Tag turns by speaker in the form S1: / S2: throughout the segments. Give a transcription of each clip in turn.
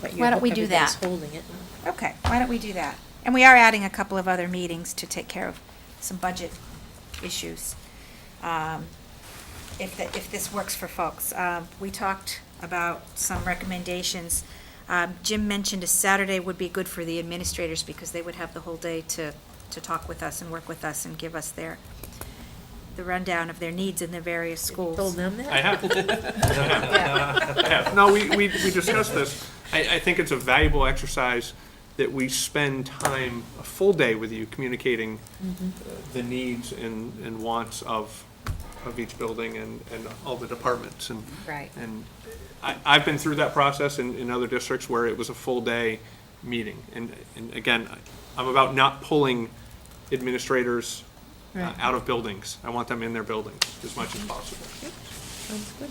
S1: But you
S2: Why don't
S1: hope
S2: we do
S1: everybody's
S2: that?
S1: holding it.
S3: Okay, why don't we do that? And we are adding a couple of other meetings to take care of some budget issues. Um, If, the- if this works for folks. Um, We talked about some recommendations. Um, Jim mentioned a Saturday would be good for the administrators because they would have the whole day to, to talk with us and work with us and give us their, the rundown of their needs in their various schools.
S1: Told them that?
S4: I have. I have. No, we, we, we discussed this. I, I think it's a valuable exercise that we spend time, a full day with you communicating uh, the needs and, and wants of, of each building and, and all the departments and.
S1: Right.
S4: And I, I've been through that process in, in other districts where it was a full day meeting. And, and again, I- I'm about not pulling administrators uh,
S1: Right.
S4: out of buildings. I want them in their buildings as much as possible.
S1: Sounds good.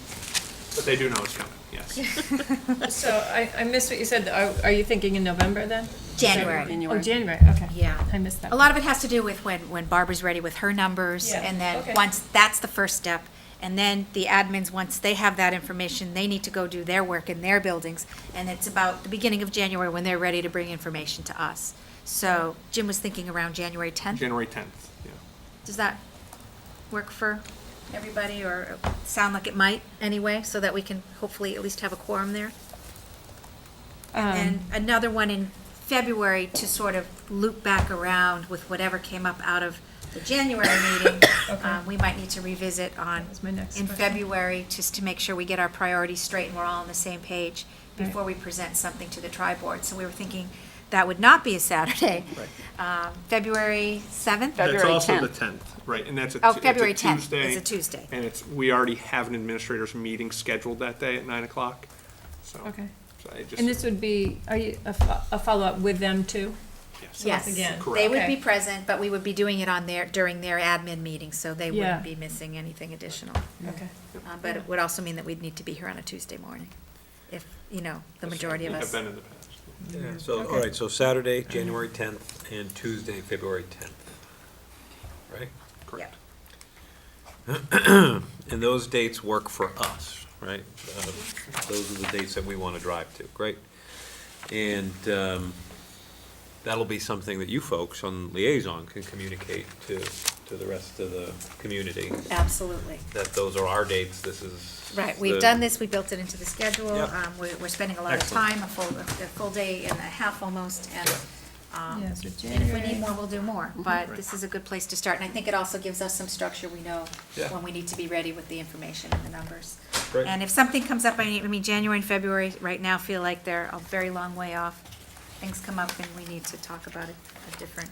S4: But they do know it's coming, yes.
S5: So I, I missed what you said. Are, are you thinking in November then?
S3: January.
S5: Oh, January, okay.
S3: Yeah.
S5: I missed that.
S3: A lot of it has to do with when, when Barbara's ready with her numbers,
S5: Yeah,
S3: and then,
S5: okay.
S3: once, that's the first step. And then the admins, once they have that information, they need to go do their work in their buildings. And it's about the beginning of January when they're ready to bring information to us. So Jim was thinking around January tenth.
S4: January 10th, yeah.
S3: Does that work for everybody, or sound like it might, anyway, so that we can hopefully at least have a quorum there?
S5: Um,
S3: And another one in February to sort of loop back around with whatever came up out of the January meeting. Um, We might need to revisit on,
S5: That was my next
S3: in
S5: question.
S3: February, just to make sure we get our priorities straight and we're all on the same page
S5: Right.
S3: before we present something to the tri board. So we were thinking that would not be a Saturday. Um, February 7th?
S4: That's
S6: February
S4: also the
S6: 10th.
S4: 10th, right, and that's a.
S3: Oh,
S4: it's a
S3: February 10th. It's
S4: Tuesday,
S3: a Tuesday.
S4: And it's, we already have an administrators meeting scheduled that day at 9 o'clock, so.
S5: Okay.
S4: So I
S5: And this
S4: just,
S5: would be, are you, a, fo- a follow-up with them too?
S4: yes.
S3: Yes.
S5: again.
S3: They
S4: Correct.
S3: would be
S5: Okay.
S3: present, but we would be doing it on their, during their admin meeting, so they
S5: Yeah.
S3: wouldn't be missing anything additional.
S5: Okay.
S3: Uh, But it would also mean that we'd need to be here on a Tuesday morning, if, you know, the majority of
S4: Have
S3: us.
S4: been in the past.
S7: Yeah, so, all right, so Saturday, January 10th, and Tuesday, February 10th, right?
S4: Correct.
S7: And those dates work for us, right? Uh, Those are the dates that we want to drive to, great. And um, that'll be something that you folks on liaison can communicate to, to the rest of the community,
S3: Absolutely.
S7: that those are our dates, this is.
S3: Right, we've
S7: the-
S3: done this, we built it into the schedule,
S7: Yeah.
S3: um, we're, we're spending a lot of
S7: Excellent.
S3: time, a full, a full day and a half almost, and, um,
S5: Yeah, so
S3: and if we
S5: January.
S3: need more, we'll do more,
S4: Mm-hmm.
S3: but this is a good place to start, and I think it also gives us some structure, we know
S7: Yeah.
S3: when we need to be ready with the information and the numbers.
S7: Great.
S3: And if something comes up, I mean, I mean, January and February right now feel like they're a very long way off, things come up and we need to talk about it a different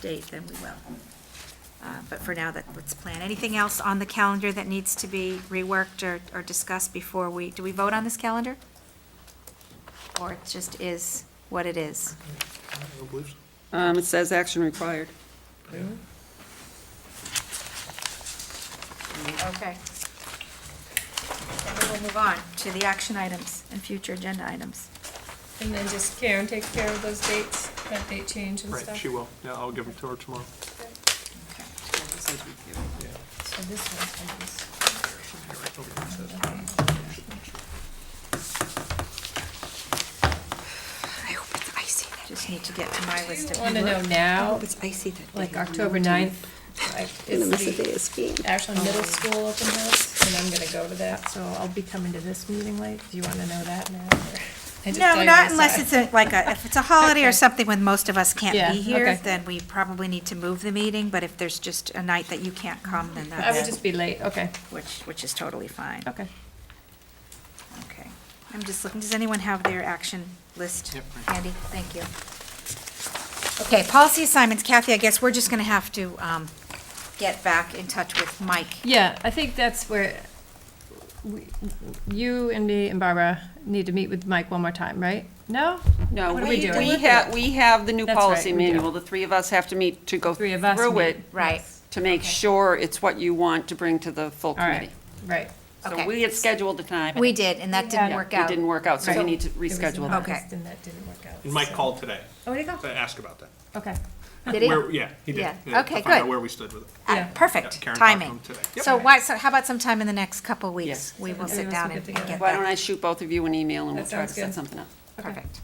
S3: date, then we will. Uh, But for now, that, let's plan. Anything else on the calendar that needs to be reworked or, or discussed before we, do we vote on this calendar? Or it just is what it is?
S6: Um, it says action required.
S3: Okay. And we'll move on to the action items and future agenda items.
S5: And then just Karen takes care of those dates, that date change and
S4: Right,
S5: stuff?
S4: she will, yeah, I'll give them to her tomorrow.
S5: So this one, I just-
S3: I hope it's icy. Just need to get to my
S5: Do you
S3: list of.
S5: want to know now,
S6: It's icy that
S5: like October 9th? like,
S6: In the
S5: is
S6: middle of the day of skiing.
S5: Ashland
S3: Oh.
S5: Middle School open house, and I'm gonna go to that, so I'll be coming to this meeting late. Do you wanna know that now? or- I just tell
S3: No,
S5: you
S3: not
S5: on the
S3: unless
S5: side.
S3: it's a, like, a if it's a holiday or
S5: Okay.
S3: something when most of us can't
S5: Yeah,
S3: be here,
S5: okay.
S3: then we probably need to move the meeting, but if there's just a night that you can't come, then
S5: I would
S3: that's,
S5: just be late, okay,
S3: which, which is totally fine.
S5: okay.
S3: Okay, I'm just looking, does anyone have their action list? Andy, thank you. Okay, policy assignments, Kathy, I guess we're just gonna have to, um, get back in touch with Mike.
S5: Yeah, I think that's where we, you and me and Barbara need to meet with Mike one more time, right? No?
S6: No,
S5: What are
S6: we,
S5: doing?
S6: we have, we have the new
S5: That's right,
S6: policy
S5: we do.
S6: manual. The three of us have to meet to go
S5: Three of us
S6: through
S5: meet.
S6: it
S3: Right,
S6: to make sure it's what you want to bring to the full
S5: All right,
S6: committee.
S5: right.
S3: Okay.
S6: So we had scheduled the time.
S3: we did, and that didn't
S6: Yeah,
S3: work
S6: It
S3: out.
S6: didn't work out, so we
S5: Right.
S6: need to
S5: There was an
S6: reschedule that.
S3: Okay.
S5: August And that didn't work out.
S4: And Mike
S5: so-
S4: called today
S3: Oh, where'd it
S4: to
S3: go?
S4: ask about that.
S5: Okay,
S3: Did it?
S4: Where- Yeah, he did.
S3: Yeah.
S4: yeah,
S3: Okay,
S4: To find out
S3: good.
S4: where we stood with it.
S3: Ah,
S5: Yeah.
S4: Yeah,
S3: Perfect,
S4: Karen talked to him
S3: timing.
S4: today. Yep.
S3: So why, so how about sometime in the next couple weeks?
S6: Yes.
S3: We will
S5: Maybe
S3: sit
S5: we'll
S3: down and
S5: get
S3: and
S5: together.
S3: get
S6: Why don't
S3: that.
S6: I shoot both of you an email and
S5: That
S6: we'll try to
S5: sounds
S6: set
S5: good.
S6: something up?
S5: Okay.
S3: perfect.